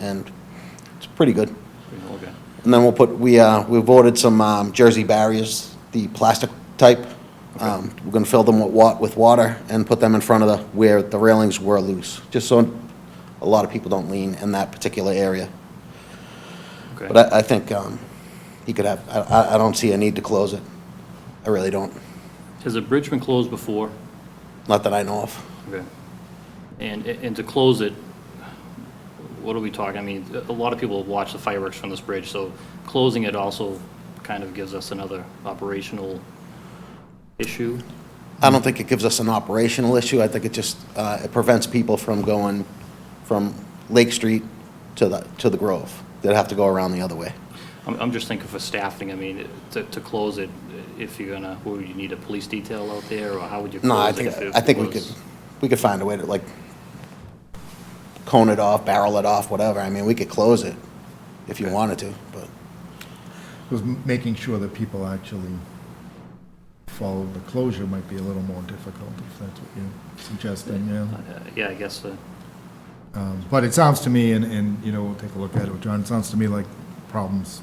and it's pretty good. Okay. And then we'll put, we, uh, we've ordered some um, Jersey barriers, the plastic type. Um, We're gonna fill them with wa, with water and put them in front of the, where the railings were loose, just so a lot of people don't lean in that particular area. Okay. But I, I think, um, he could have, I, I, I don't see a need to close it. I really don't, Has the bridge been closed before? not that I know of. Okay. And, and to close it, what are we talking? I mean, a lot of people watch the fireworks from this bridge, so closing it also kind of gives us another operational issue. I don't think it gives us an operational issue. I think it just, uh, it prevents people from going from Lake Street to the, to the Grove. They'd have to go around the other way. I'm, I'm just thinking for staffing, I mean, to, to close it, if you're gonna, would you need a police detail out there, or how would you close it? No, I think, if it I think we could, was- we could find a way to like cone it off, barrel it off, whatever. I mean, we could close it if you wanted to, but Because m- making sure that people actually follow the closure might be a little more difficult, if that's what you're suggesting, yeah. Uh, Yeah, I guess, uh, Um, But it sounds to me, and, and, you know, we'll take a look at it, with John, it sounds to me like problems,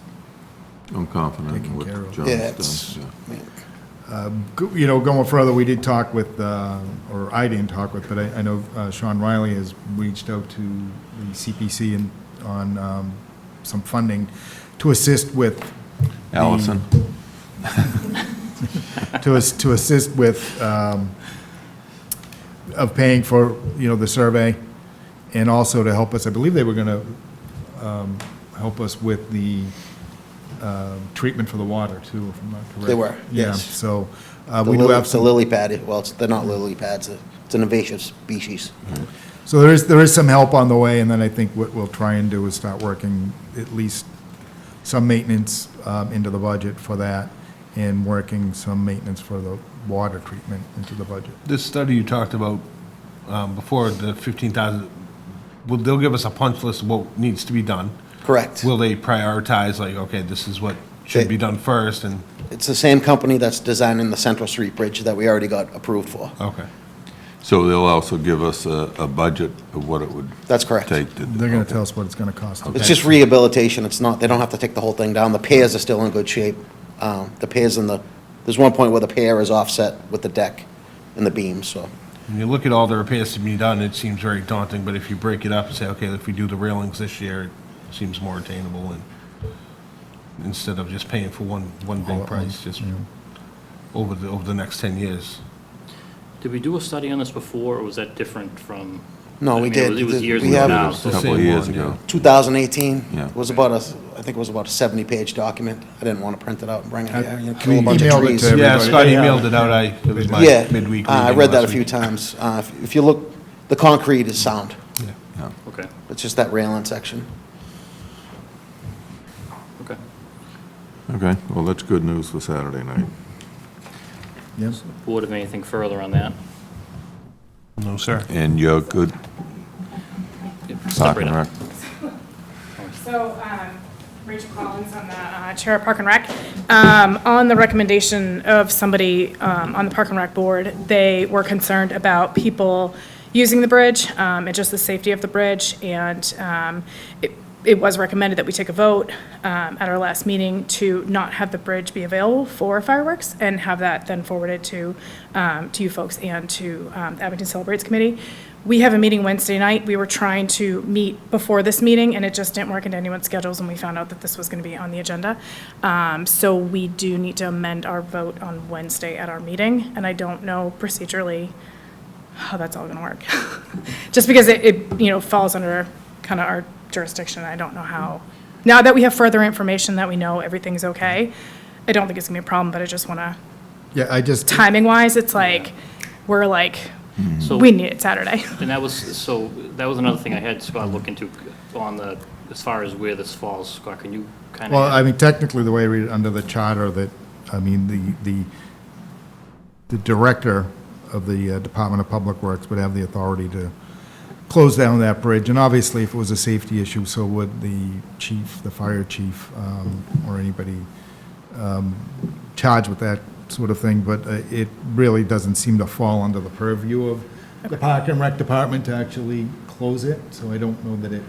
I'm confident Taken in what care of. John's done. yeah, it's, yeah. I mean, Go- you know, going further, we did talk with, uh, or I didn't talk with, but I, I know uh, Sean Riley has reached out to the CPC and on um, some funding to assist with. the- Allison, to, as- to assist with, um, of paying for, you know, the survey, and also to help us, I believe they were gonna, um, help us with the, um, treatment for the water, too, if I'm not correct. They were, Yeah, yes. so, uh, the we do lily, have it's a some. lily pad, well, it's, they're not lily pads, it's an invasive species. So there is, there is some help on the way, and then I think what we'll try and do is start working at least some maintenance um, into the budget for that, and working some maintenance for the water treatment into the budget. This study you talked about um, before, the 15,000, will, they'll give us a punch list of what needs to be done? Correct. Will they prioritize, like, okay, this is what They- should be done first, and, It's the same company that's designing the Central Street Bridge that we already got approved for. okay. so they'll also give us a, a budget of what it would That's correct. take to. They're gonna tell us what it's gonna cost. It's just rehabilitation, it's not, they don't have to take the whole thing down, the piers are still in good shape. Um, The piers and the, there's one point where the pier is offset with the deck and the beams, so. When you look at all the repairs to be done, it seems very daunting, but if you break it up and say, okay, if we do the railings this year, it seems more attainable, and instead of just paying for one, one Oh, All big at price, once, just yeah. over the, over the next 10 years. did we do a study on this before, or was that different from? No, I we mean, it did. was- It was We years have- ago A now. it's the Couple of same years one, ago. 2018 Yeah. was about a, I think it was about a 70-page document. I didn't want to print it out and bring it here, you know, kill a bunch of emailed it trees. to Yeah, Everybody- Scott they have emailed it. it out, I, it was my Yeah, midweek meeting Uh, I read that a last few week. times. Uh, if- If you look, the concrete is sound, Yeah. Yeah. Okay, it's just that railing section. okay. Okay, well, that's good news for Saturday night. Yes. Board have anything further on that? No, sir. And you're good, Step Park right and up. Rec? So, um, Rachel Collins, I'm the uh, Chair of Park and Rec. Um, On the recommendation of somebody um, on the Park and Rec Board, they were concerned about people using the bridge um, and just the safety of the bridge. And um, it- it was recommended that we take a vote um, at our last meeting to not have the bridge be available for fireworks and have that then forwarded to, um, to you folks and to um, the Abington Celebrates Committee. We have a meeting Wednesday night. We were trying to meet before this meeting, and it just didn't work into anyone's schedules, and we found out that this was going to be on the agenda. Um, So we do need to amend our vote on Wednesday at our meeting, and I don't know procedurally how that's all going to work. Just because it, it, you know, falls under kind of our jurisdiction, I don't know how. Now that we have further information that we know everything's okay, I don't think it's going to be a problem, but I just want to, Yeah, I just, timing-wise, it's like, we're like, So- we need it Saturday. And that was, so, that was another thing I had Scott look into on the, as far as where this falls. Scott, can you kind of? well, I mean, technically, the way I read it under the charter, that, I mean, the, the, the director of the uh, Department of Public Works would have the authority to close down that bridge, and obviously, if it was a safety issue, so would the chief, the fire chief, um, or anybody um, charged with that sort of thing, but uh, it really doesn't seem to fall under the purview of the Park and Rec Department to actually close it, so I don't know that it